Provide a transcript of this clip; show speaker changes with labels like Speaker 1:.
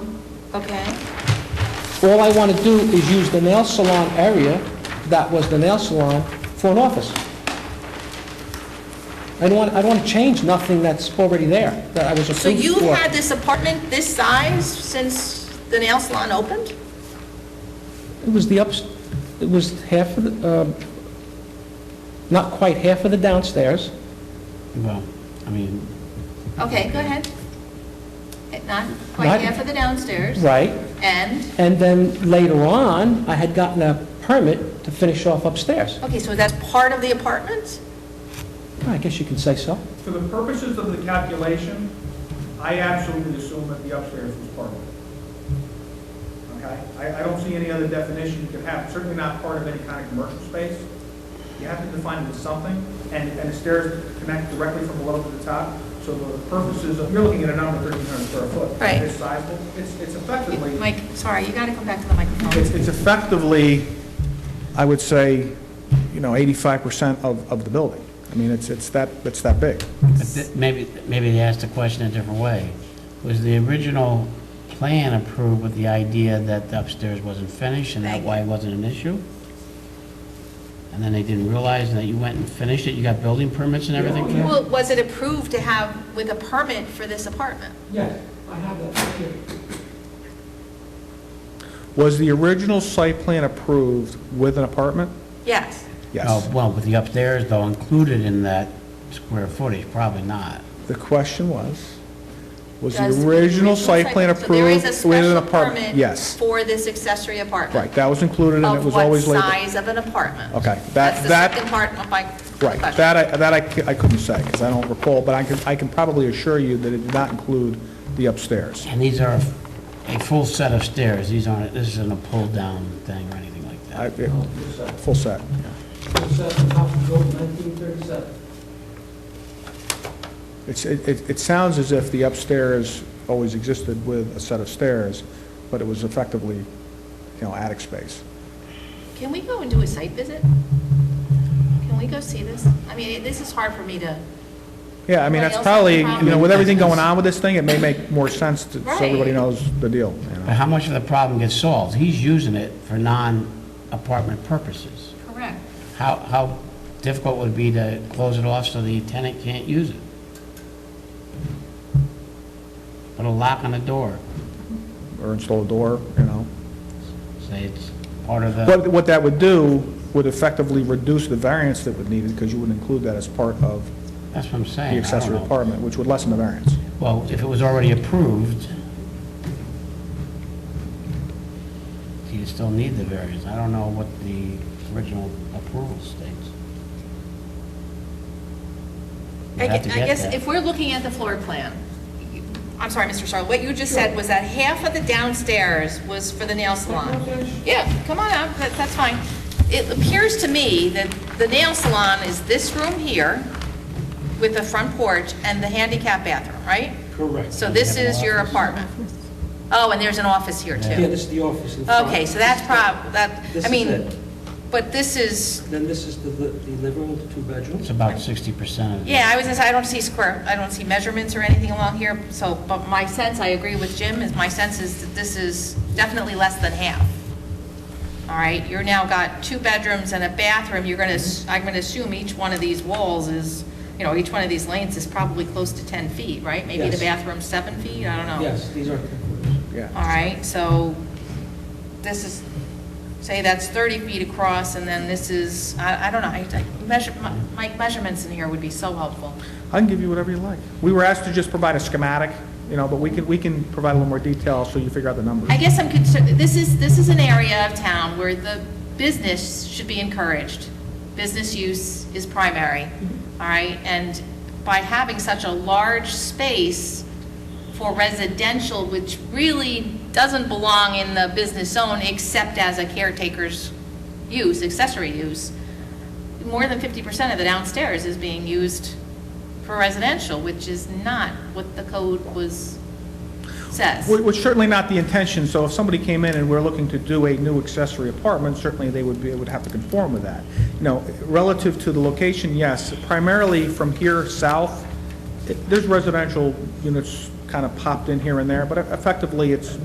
Speaker 1: Okay.
Speaker 2: All I want to do is use the nail salon area that was the nail salon for an office. I don't want, I don't want to change nothing that's already there, that I was
Speaker 1: So
Speaker 2: approved
Speaker 1: you've
Speaker 2: for.
Speaker 1: had this apartment this size since the nail salon opened?
Speaker 2: It was the ups, it was half of the, um, not quite half of the downstairs.
Speaker 3: Well, I mean,
Speaker 1: Okay, go ahead. Eh, Not
Speaker 2: Not-
Speaker 1: quite half of the downstairs.
Speaker 2: Right.
Speaker 1: And,
Speaker 2: And then later on, I had gotten a permit to finish off upstairs.
Speaker 1: okay, so that's part of the apartment?
Speaker 2: I guess you can say so.
Speaker 4: For the purposes of the calculation, I absolutely assume that the upstairs was part of it. Okay? I, I don't see any other definition you could have, certainly not part of any kind of commercial space. You have to define it as something, and, and the stairs connect directly from below to the top. So the purposes of, you're looking at a number thirteen hundred square foot.
Speaker 1: Right.
Speaker 4: It's sizable, it's, it's effectively.
Speaker 1: Mike, sorry, you gotta come back to the
Speaker 4: It's
Speaker 1: microphone.
Speaker 4: it's effectively, I would say, you know, 85% of, of the building. I mean, it's, it's that, it's that big.
Speaker 3: but th- maybe, maybe they asked the question a different way. Was the original plan approved with the idea that the upstairs wasn't finished and that
Speaker 1: Thank
Speaker 3: why it wasn't an issue? And then they didn't realize that you went and finished it, you got building permits and everything?
Speaker 1: Well, Was it approved to have with a permit for this apartment?
Speaker 5: Yes, I have that here.
Speaker 4: Was the original site plan approved with an apartment?
Speaker 1: Yes.
Speaker 4: Yes.
Speaker 3: Oh, Well, with the upstairs though included in that square footage, probably not.
Speaker 4: The question was, was
Speaker 1: Does
Speaker 4: the original site plan
Speaker 1: So there is a
Speaker 4: approved with an
Speaker 1: special
Speaker 4: apartment?
Speaker 1: permit
Speaker 4: Yes,
Speaker 1: For this accessory apartment?
Speaker 4: right, that was included and it was always
Speaker 1: Of what
Speaker 4: labeled.
Speaker 1: size of an apartment?
Speaker 4: Okay, that-
Speaker 1: That's the
Speaker 4: that-
Speaker 1: second part of my
Speaker 4: Right,
Speaker 1: question.
Speaker 4: that I, that I c- I couldn't say, because I don't recall, but I can, I can probably assure you that it did not include the upstairs.
Speaker 3: And these are a full set of stairs, these aren't, this isn't a pull-down thing or anything like
Speaker 4: I-
Speaker 3: that.
Speaker 4: it- Full set.
Speaker 5: It says the house was built in 1937.
Speaker 4: It's, it, it- it sounds as if the upstairs always existed with a set of stairs, but it was effectively, you know, attic space.
Speaker 1: Can we go and do a site visit? Can we go see this? I mean, this is hard for me to,
Speaker 4: Yeah, I mean, that's
Speaker 1: Everybody
Speaker 4: probably,
Speaker 1: else has a
Speaker 4: you know, with everything
Speaker 3: problem.
Speaker 4: going on with this thing, it may make more sense to, so everybody
Speaker 1: Right.
Speaker 4: knows the deal, you know.
Speaker 3: But how much of the problem gets solved? He's using it for non-apartment purposes.
Speaker 1: correct.
Speaker 3: How, how difficult would it be to close it off so the tenant can't use it? Put a lock on the door,
Speaker 4: or install a door, you know.
Speaker 3: say it's part of the,
Speaker 4: But what that would do would effectively reduce the variance that would need it, because you would include that as part of
Speaker 3: that's what I'm saying.
Speaker 4: the
Speaker 3: I don't
Speaker 4: accessory
Speaker 3: know.
Speaker 4: apartment, which would lessen the variance.
Speaker 3: Well, if it was already approved, do you still need the variance? I don't know what the original approval states.
Speaker 1: I
Speaker 3: We'd have to
Speaker 1: gue- I
Speaker 3: get
Speaker 1: guess
Speaker 3: that.
Speaker 1: if we're looking at the floor plan, I'm sorry, Mr. Charlotte, what you just said was that half of the downstairs was for the nail salon. Yeah, come on up, that- that's fine. It appears to me that the nail salon is this room here with the front porch and the handicap bathroom, right?
Speaker 3: Correct.
Speaker 1: So this is your apartment. Oh, and there's an office here
Speaker 2: Yeah,
Speaker 1: too.
Speaker 2: this is the office in front.
Speaker 1: Okay, so that's prob, that,
Speaker 5: This
Speaker 1: I
Speaker 5: is
Speaker 1: mean,
Speaker 5: it.
Speaker 1: but this is,
Speaker 5: Then this is the li- the living room, the two bedrooms.
Speaker 3: It's about sixty percent of the...
Speaker 1: Yeah, I was, gonna say I don't see square, I don't see measurements or anything along here, so, but my sense, I agree with Jim, is my sense is that this is definitely less than half. All right, you're now got two bedrooms and a bathroom, you're gonna, ass- I'm gonna assume each one of these walls is, you know, each one of these lanes is probably close to 10 feet, right? Maybe the
Speaker 5: Yes.
Speaker 1: bathroom's seven feet, I don't know.
Speaker 5: Yes, these are temporary.
Speaker 1: All
Speaker 4: Yeah.
Speaker 1: right, so this is, say that's 30 feet across, and then this is, I, I don't know, I, I measure, Mike, measurements in here would be so helpful.
Speaker 4: I can give you whatever you like. We were asked to just provide a schematic, you know, but we can, we can provide a little more detail so you figure out the numbers.
Speaker 1: I guess I'm concerned, this is, this is an area of town where the business should be encouraged. Business use is primary, all right? And by having such a large space for residential, which really doesn't belong in the business zone except as a caretaker's use, accessory use, more than 50% of the downstairs is being used for residential, which is not what the code was, says.
Speaker 4: Wh- Which certainly not the intention, so if somebody came in and we're looking to do a new accessory apartment, certainly they would be, would have to conform with that. You know, relative to the location, yes, primarily from here e-, south, it- there's residential units kind of popped in here and there, but effectively, it's